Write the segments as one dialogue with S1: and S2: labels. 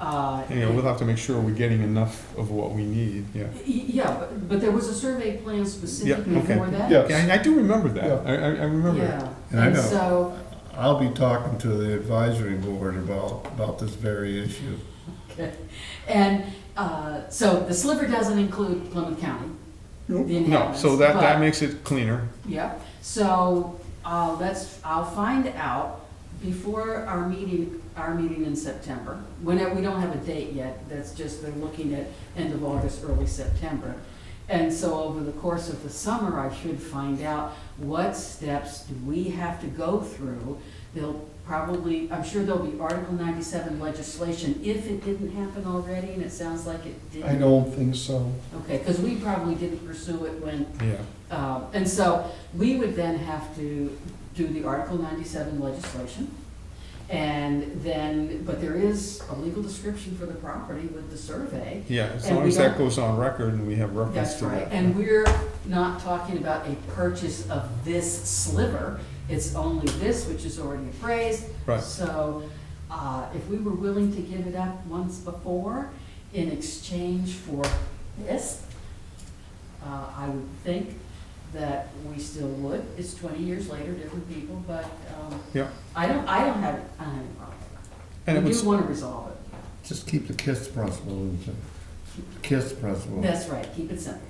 S1: Uh,
S2: Yeah, we'll have to make sure we're getting enough of what we need, yeah.
S1: y- Yeah, but, but there was a survey plan specifically
S2: okay.
S1: for that?
S2: Yeah,
S3: Yes,
S2: I, I do remember
S3: Yeah.
S2: that, I, I, I remember it.
S1: Yeah,
S3: And I
S1: and
S3: know.
S1: so,
S3: I'll be talking to the advisory board about, about this very issue.
S1: okay. and, uh, so the sliver doesn't include Plymouth County, the
S2: No,
S1: inhabitants.
S2: so that, that
S1: but-
S2: makes it cleaner,
S1: Yep, so, uh, let's, I'll find out before our meeting, our meeting in September. When, it- we don't have a date yet, that's just, they're looking at end of August, early September. And so over the course of the summer, I should find out what steps do we have to go through? They'll probably, I'm sure there'll be Article ninety-seven legislation if it didn't happen already, and it sounds like it did.
S3: I don't think so.
S1: Okay, because we probably didn't pursue it when
S2: yeah.
S1: um, And so we would then have to do the Article 97 legislation. And then, but there is a legal description for the property with the survey.
S2: Yeah, as
S1: And
S2: long
S1: we
S2: as that
S1: don't-
S2: goes on record and we have reference
S1: That's
S2: to
S1: right.
S2: that.
S1: And we're not talking about a purchase of this sliver. It's only this, which is already appraised.
S2: Right.
S1: So uh, if we were willing to give it up once before in exchange for this, uh, I would think that we still would. It's twenty years later, different people, but um,
S2: Yeah.
S1: I don't, I don't have, I don't have a problem.
S2: And it
S1: We
S2: was,
S1: do want to resolve it.
S3: Just keep the KISS principle, in check. KISS principle.
S1: That's right, keep it simple,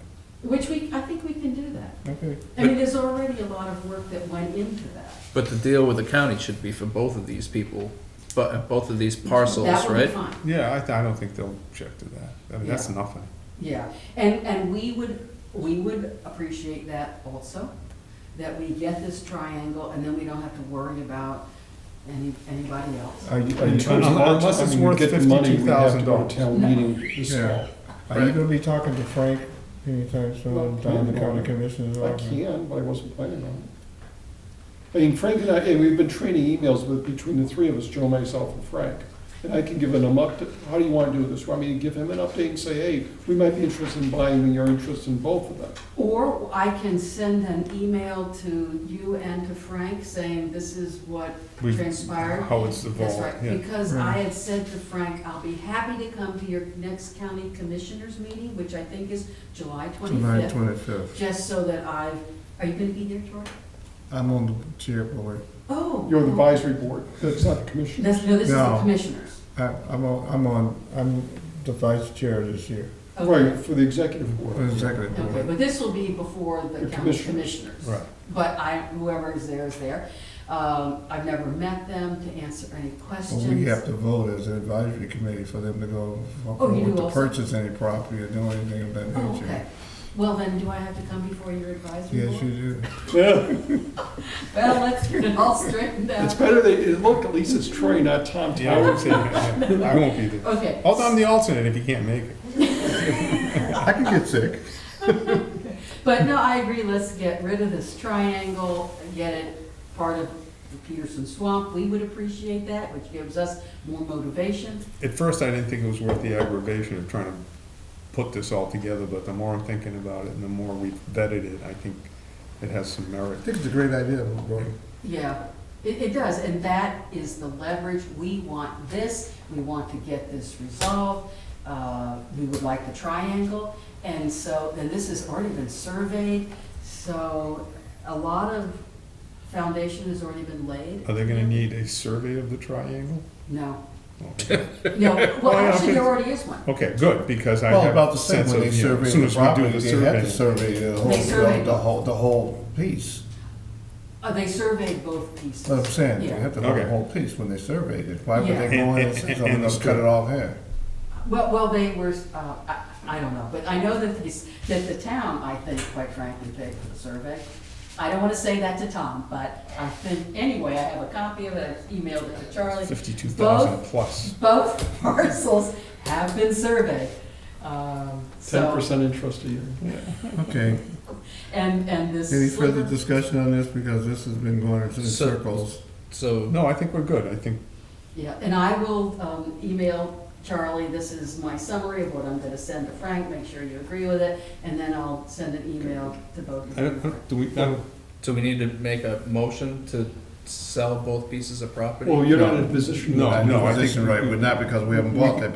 S1: which we, I think we can do that.
S3: Okay.
S1: I mean, there's already a lot of work that went into that.
S4: But the deal with the county should be for both of these people, but both of these parcels,
S1: That would be
S4: right?
S1: fine.
S2: yeah, I, th- I don't think they'll object to that, I mean, that's
S1: Yeah.
S2: nothing.
S1: Yeah, and, and we would, we would appreciate that also, that we get this triangle and then we don't have to worry about any, anybody else.
S5: Are you, are
S2: In
S5: you
S2: terms of- unless it's worth $52,000.
S5: Town meeting this
S3: Yeah.
S5: fall.
S3: Are you gonna be talking to Frank anytime soon, down the county commissioner's
S5: I
S3: office?
S5: can, but I wasn't planning on it. I mean, Frank and I, and we've been trading emails with, between the three of us, Joe, myself, and Frank. And I can give him an update, how do you wanna do this? I mean, give him an update and say, hey, we might be interested in buying, and you're interested in both of them.
S1: Or I can send an email to you and to Frank saying this is what
S2: We've-
S1: transpired.
S2: How it's
S1: That's
S2: evolved,
S1: right,
S2: yeah.
S1: because I had said to Frank, I'll be happy to come to your next county commissioners meeting, which I think is July
S3: July
S1: twenty-fifth,
S3: twenty-fifth.
S1: just so that I've, are you gonna be there, George?
S3: I'm on the chair board.
S1: Oh.
S5: You're the advisory board, that's not the commission.
S1: That's, no, this is the
S3: No.
S1: commissioners.
S3: I, I'm on, I'm on, I'm the vice chair this year,
S1: Okay.
S5: Right, for the executive board.
S3: for the executive
S1: Okay,
S3: board.
S1: but this will be before the
S5: The
S1: county
S5: commissioners.
S1: commissioners.
S2: Right.
S1: But I, whoever is there is there. Um, I've never met them to answer any
S3: Well,
S1: questions.
S3: we have to vote as an advisory committee for them to go,
S1: Oh, you
S3: forward
S1: do
S3: to
S1: also?
S3: purchase any property or do anything of that
S1: Oh,
S3: nature.
S1: okay. Well, then, do I have to come before your advisory
S3: Yes, you
S1: board?
S3: do.
S5: Yeah,
S1: Well, let's get it all straightened
S5: it's
S1: out.
S5: better they, look, at least it's Troy, not Tom
S2: Yeah, I
S5: Tower.
S2: would say, yeah, I won't be there.
S1: Okay.
S2: Although I'm the alternate if you can't make it.
S3: I could get sick.
S1: But no, I agree, let's get rid of this triangle, get it part of the Peterson Swamp. We would appreciate that, which gives us more motivation.
S2: At first, I didn't think it was worth the aggravation of trying to put this all together, but the more I'm thinking about it and the more we vetted it, I think it has some merit.
S3: I think it's a great idea, Roy.
S1: Yeah, it, it does, and that is the leverage, we want this, we want to get this resolved, uh, we would like the triangle, and so, and this has already been surveyed, so a lot of foundation has already been laid.
S2: Are they gonna need a survey of the triangle?
S1: No,
S2: Okay.
S1: no, well, actually, there already is one.
S2: Okay, good, because I
S3: Well,
S2: have
S3: about
S2: a
S3: the same
S2: sense
S3: when
S2: of,
S3: they
S2: you know, as
S3: surveyed
S2: soon
S3: the
S2: as we do
S3: property,
S2: the
S3: they had to
S2: survey.
S3: survey the whole,
S1: surveyed.
S3: the whole, the whole piece.
S1: Uh, they surveyed both pieces.
S3: That's what I'm saying, they
S1: Yeah.
S3: had to know the
S2: Okay.
S3: whole piece when they surveyed it. Why would
S1: Yeah.
S3: they go in
S2: And-
S3: and say
S2: and-
S3: something,
S2: and
S3: they'll cut
S2: the-
S3: it off here?
S1: Well, well, they were, uh, I, I don't know, but I know that they, s- that the town, I think, quite frankly, paid for the survey. I don't wanna say that to Tom, but I think, anyway, I have a copy of it, I emailed it to Charlie.
S2: Fifty-two thousand
S1: Both-
S2: plus.
S1: Both parcels have been surveyed, um,
S5: Ten
S1: so,
S5: percent interest a year.
S3: Okay,
S1: and, and this.
S3: any further
S1: sliver-
S3: discussion on this, because this has been going in
S4: So-
S3: circles.
S4: So,
S2: No, I think we're good, I think,
S1: Yeah, and I will um, email Charlie, this is my summary of what I'm gonna send to Frank, make sure you agree with it, and then I'll send an email to both of
S2: I
S1: you.
S2: don't, do we, I don't-
S4: so we need to make a motion to sell both pieces of property?
S5: Well, you're not in a position.
S2: No,
S3: Not in
S2: no,
S3: a
S2: I think
S3: position,
S2: we-
S3: Right, but not because we haven't bought that